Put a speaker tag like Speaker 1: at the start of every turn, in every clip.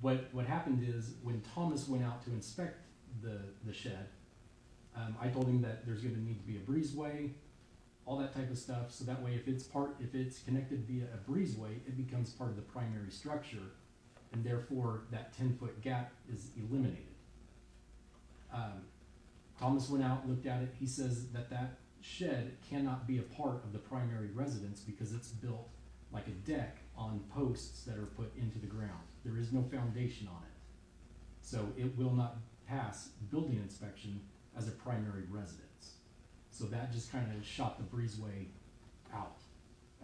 Speaker 1: what what happened is when Thomas went out to inspect the the shed, um, I told him that there's going to need to be a breezeway, all that type of stuff. So that way, if it's part, if it's connected via a breezeway, it becomes part of the primary structure, and therefore that ten foot gap is eliminated. Um, Thomas went out, looked at it. He says that that shed cannot be a part of the primary residence because it's built like a deck on posts that are put into the ground. There is no foundation on it. So it will not pass building inspection as a primary residence. So that just kind of shot the breezeway out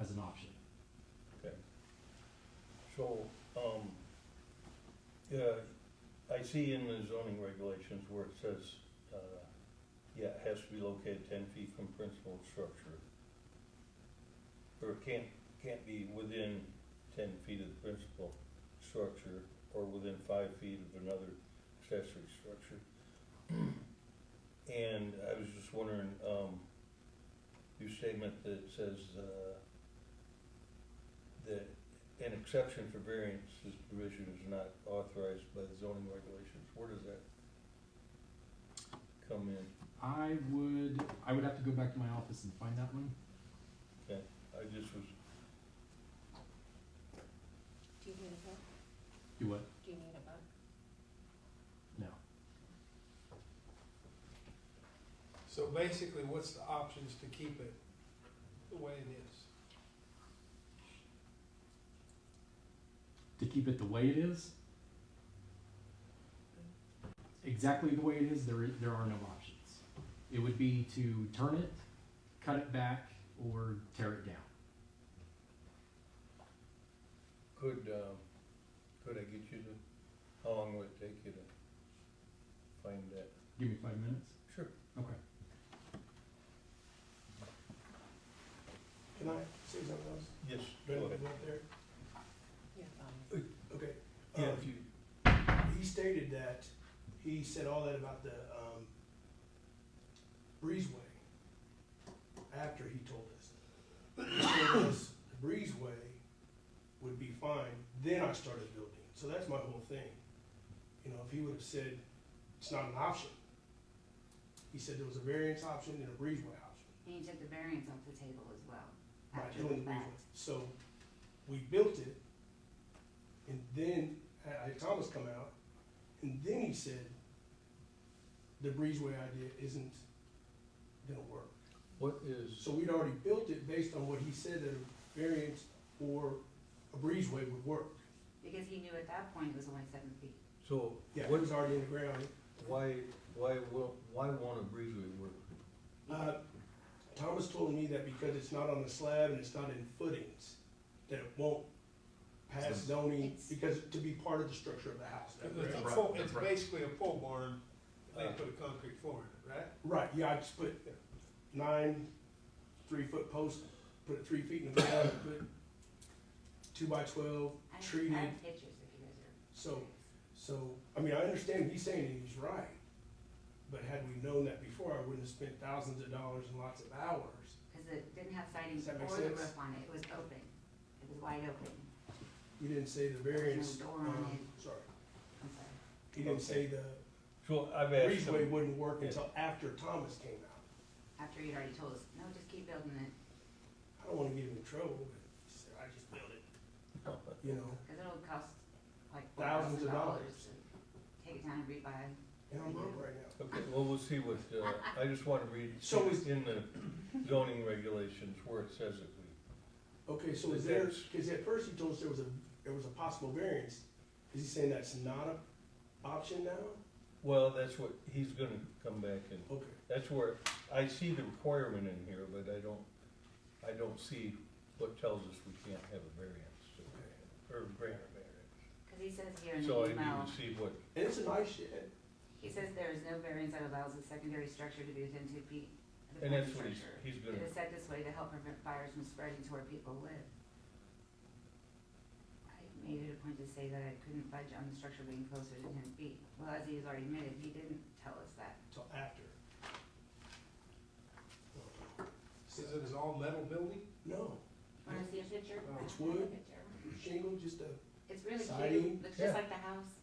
Speaker 1: as an option.
Speaker 2: So, um, yeah, I see in the zoning regulations where it says, uh, yeah, it has to be located ten feet from principal structure. Or it can't, can't be within ten feet of the principal structure or within five feet of another accessory structure. And I was just wondering, um, your statement that says, uh, that an exception for variances provision is not authorized by the zoning regulations, where does that come in?
Speaker 1: I would, I would have to go back to my office and find that one.
Speaker 2: I just was,
Speaker 3: Do you need a book?
Speaker 1: Do what?
Speaker 3: Do you need a book?
Speaker 1: No.
Speaker 4: So basically, what's the options to keep it the way it is?
Speaker 1: To keep it the way it is? Exactly the way it is, there, i- there are no options. It would be to turn it, cut it back, or tear it down.
Speaker 2: could, um, could I get you to, how long would it take you to find that?
Speaker 1: Give me five minutes.
Speaker 2: Sure.
Speaker 1: Okay.
Speaker 4: Can I say something else?
Speaker 2: Yes, go
Speaker 4: Brandon,
Speaker 2: ahead.
Speaker 4: right there?
Speaker 3: Yeah.
Speaker 4: Okay.
Speaker 2: Yeah,
Speaker 4: um,
Speaker 2: if you,
Speaker 4: He stated that, he said all that about the, um, breezeway after he told us. He told us the breezeway would be fine, then I started building. So that's my whole thing. You know, if he would have said, it's not an option. He said there was a variance option and a breezeway option.
Speaker 5: And you took the variance off the table as well.
Speaker 4: by
Speaker 5: after
Speaker 4: doing the
Speaker 5: fact.
Speaker 4: rework. So we built it, and then I, I had Thomas come out, and then he said, the breezeway idea isn't gonna work.
Speaker 2: what is,
Speaker 4: So we'd already built it based on what he said that a variance or a breezeway would work.
Speaker 5: Because he knew at that point it was only seven feet.
Speaker 2: so,
Speaker 4: Yeah, it
Speaker 2: what,
Speaker 4: was already in the ground.
Speaker 2: why, why, won't- why won't a breezeway work?
Speaker 4: Uh, Thomas told me that because it's not on the slab and it's not in footings, that it won't pass
Speaker 2: So-
Speaker 4: zoning,
Speaker 3: It's-
Speaker 4: because to be part of the structure of the house.
Speaker 6: It's
Speaker 4: correct?
Speaker 6: a
Speaker 7: Right,
Speaker 6: pole-
Speaker 7: that's
Speaker 6: it's
Speaker 7: right.
Speaker 6: basically a pole barn, they
Speaker 2: Uh,
Speaker 6: put a concrete floor in it, right?
Speaker 4: Right, yeah, I just put nine three-foot posts, put it three feet in the ground, and put two by twelve,
Speaker 5: I have- I
Speaker 4: treated,
Speaker 5: have pictures if you guys are.
Speaker 4: so, so, I mean, I understand he's saying he's right. But had we known that before, I wouldn't have spent thousands of dollars and lots of hours.
Speaker 5: Because it didn't have siding
Speaker 4: Does that
Speaker 5: or
Speaker 4: make
Speaker 5: the
Speaker 4: sense?
Speaker 5: roof on it, it was open. It was wide open,
Speaker 4: He didn't say the variance, um, sorry,
Speaker 5: I'm sorry.
Speaker 4: he didn't say the
Speaker 2: So I've asked
Speaker 4: breezeway
Speaker 2: him,
Speaker 4: wouldn't work until after Thomas came out.
Speaker 5: After you'd already told us, no, just keep building it,
Speaker 4: I don't wanna get him in trouble, but he said, I just built it, you know,
Speaker 5: because it'll cost like four
Speaker 4: Thousands
Speaker 5: thousand
Speaker 4: of
Speaker 5: dollars
Speaker 4: dollars.
Speaker 5: to take it down and rebuy.
Speaker 4: and I'm broke right now.
Speaker 2: okay, well, we'll see what, uh, I just wanna read,
Speaker 4: So is-
Speaker 2: in the zoning regulations where it says that we
Speaker 4: Okay, so is there, because at first you told us there was a, there was a possible variance, is he saying that's not an option now?
Speaker 2: Well, that's what, he's gonna come back and,
Speaker 4: Okay,
Speaker 2: that's where, I see the requirement in here, but I don't, I don't see what tells us we can't have a variance, or or grant a
Speaker 5: Because he says here in
Speaker 2: variance. So
Speaker 5: the
Speaker 2: I need
Speaker 5: email,
Speaker 2: to see what,
Speaker 4: and it's a nice shed,
Speaker 5: he says there is no variance that allows a secondary structure to be within two feet of the
Speaker 2: and
Speaker 5: primary
Speaker 2: that's what he's,
Speaker 5: structure.
Speaker 2: he's
Speaker 5: It
Speaker 2: gonna,
Speaker 5: is set this way to help prevent fires from spreading to where people live. I made it a point to say that I couldn't budge on the structure being closer to ten feet. Well, as he's already admitted, he didn't tell us that.
Speaker 4: till after.
Speaker 6: Says it is all metal building?
Speaker 4: No,
Speaker 5: Wanna see a picture?
Speaker 6: Oh,
Speaker 4: it's wood.
Speaker 5: Picture.
Speaker 4: shingle, just uh, a
Speaker 5: It's really
Speaker 4: Siding?
Speaker 5: cute, looks
Speaker 2: Yeah.
Speaker 5: just like the house.